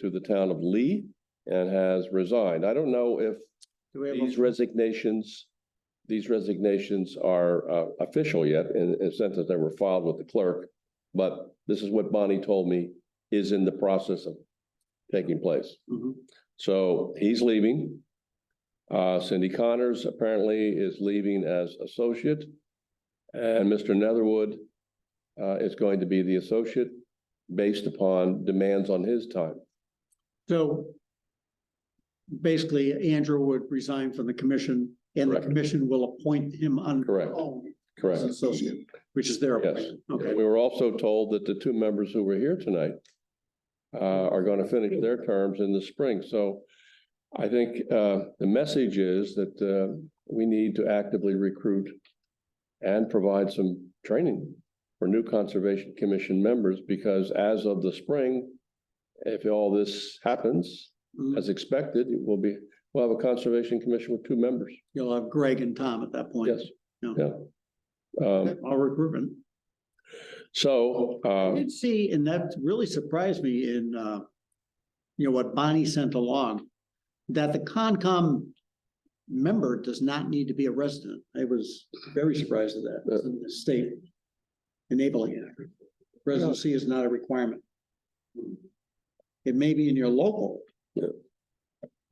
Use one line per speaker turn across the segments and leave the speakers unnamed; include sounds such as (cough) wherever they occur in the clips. to the town of Lee and has resigned. I don't know if
Do we
these
have, a-
resignations, these resignations are uh, official yet in in the sense that they were filed with the clerk. But this is what Bonnie told me is in the process of taking place.
Mhm.
So he's leaving. Uh, Cindy Connors apparently is leaving as associate. And Mr. Netherwood uh, is going to be the associate based upon demands on his time.
so basically Andrew would resign from the commission and the
Correct.
commission will appoint him on.
Correct.
As
Correct.
an associate, which is their
Yes.
appointment. Okay,
We were also told that the two members who were here tonight uh, are going to finish their terms in the spring. So I think uh, the message is that uh, we need to actively recruit and provide some training for new Conservation Commission members because as of the spring, if all this happens
Mhm.
as expected, it will be, we'll have a Conservation Commission with two members.
you'll have Greg and Tom at that point.
Yes.
No.
Yeah. Um,
All recruitment.
So
I
uh,
did see, and that really surprised me in, uh, you know, what Bonnie sent along, that the Concom member does not need to be a resident. I was very surprised at that, It's in the state enabling it. Residency is not a requirement. It may be in your local.
Yeah.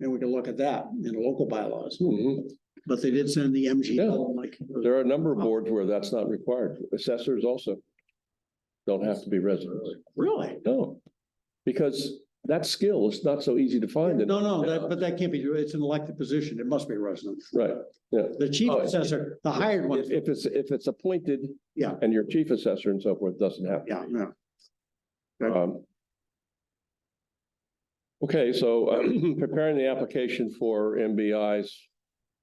And we can look at that in local bylaws,
mhm.
but they did send the MGL, like,
There are a number of boards where that's not required. Assessors also don't have to be residents.
really?
No, because that skill is not so easy to find. in-
No, no, that, but that can't be, true. it's an elected position, it must be a resident.
Right.
The chief
Oh, it-
assessor, the hired one,
If if it's, if it's appointed.
Yeah.
And your chief assessor and so forth doesn't have.
yeah, no.
Um, Okay, so um, (clears throat) preparing the application for MBI's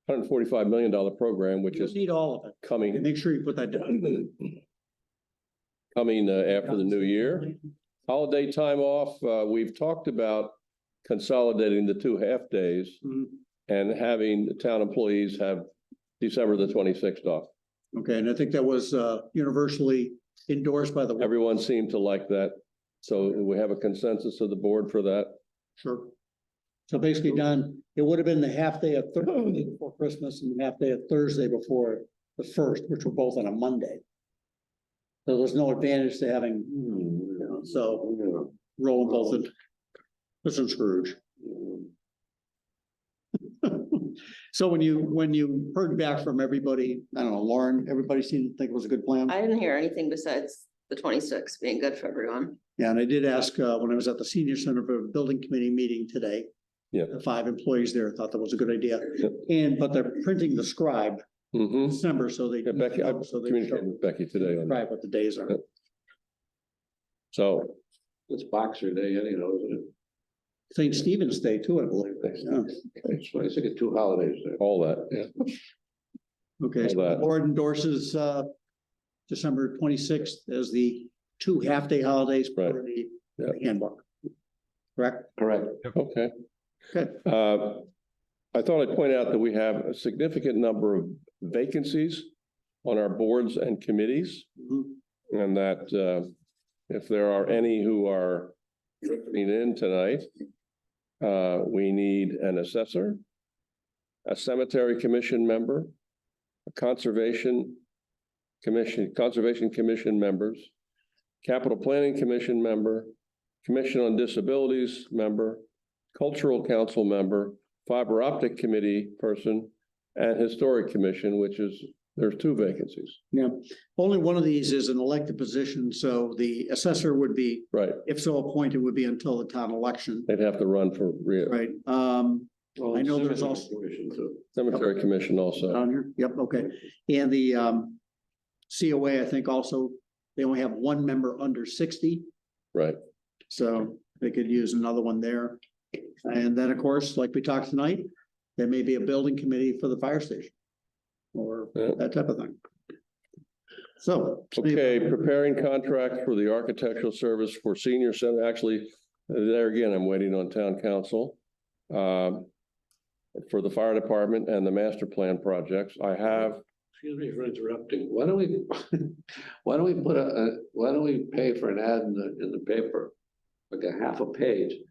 hundred forty-five million dollar program, which
You
is
need all of it,
coming, (clears throat)
make sure you put that down.
coming uh, after the new year. Holiday time off, uh, we've talked about consolidating the two half-days
Mhm.
and having the town employees have December the twenty-sixth off.
Okay, and I think that was, uh, universally endorsed by the,
Everyone seemed to like that, so we have a consensus of the board for that.
sure. So basically, Don, it would have been the half day of Thursday before Christmas and the half day of Thursday before the first, which were both on a Monday. So there's no advantage to having, you know, so roll both in. Listen, Scrooge. (laughs) So when you, when you heard back from everybody, I don't know, Lauren, everybody seemed to think it was a good plan?
I didn't hear anything besides the twenty-sixth being good for everyone.
Yeah, and I did ask, uh, when I was at the senior center for a building committee meeting today.
Yeah.
The five employees there thought that was a good idea,
Yep.
and, but they're printing the scribe
Mm-hmm.
December, so they.
Yeah, Becky, I
so they
communicated with Becky today on that.
Right, what the days are.
Yep. So,
It's Boxer Day anyhow, isn't
St. Stephen's Day too, I believe. Yeah.
it? It's, I think it's two holidays there.
all that,
Okay,
All
so the
that.
board endorses, uh, December twenty-sixth as the two half-day holidays
Right.
for the
Yep.
the handbook. Correct?
Correct.
okay.
Good.
Uh, I thought I'd point out that we have a significant number of vacancies on our boards and committees.
Mhm.
And that uh, if there are any who are drifting in tonight, uh, we need an assessor, a cemetery commission member, a conservation commission, conservation commission members, capital planning commission member, commission on disabilities member, cultural council member, fiber optic committee person, and historic commission, which is, there's two vacancies,
Yeah, only one of these is an elected position, so the assessor would be
right?
If so appointed would be until the town election,
They'd have to run for re-
right? Um, I know there's also-
Commission too.
cemetery commission also.
down here, yep, okay. And the, um, COA, I think also, they only have one member under sixty,
Right,
so they could use another one there. And then, of course, like we talked tonight, there may be a building committee for the fire station or
Yeah.
that type of thing. So.
okay, preparing contract for the architectural service for senior center, actually, there again, I'm waiting on town council. um, For the fire department and the master plan projects, I have,
Excuse me for interrupting. Why don't we, (laughs) why don't we put a, a- why don't we pay for an ad in the, in the paper? Like a half a page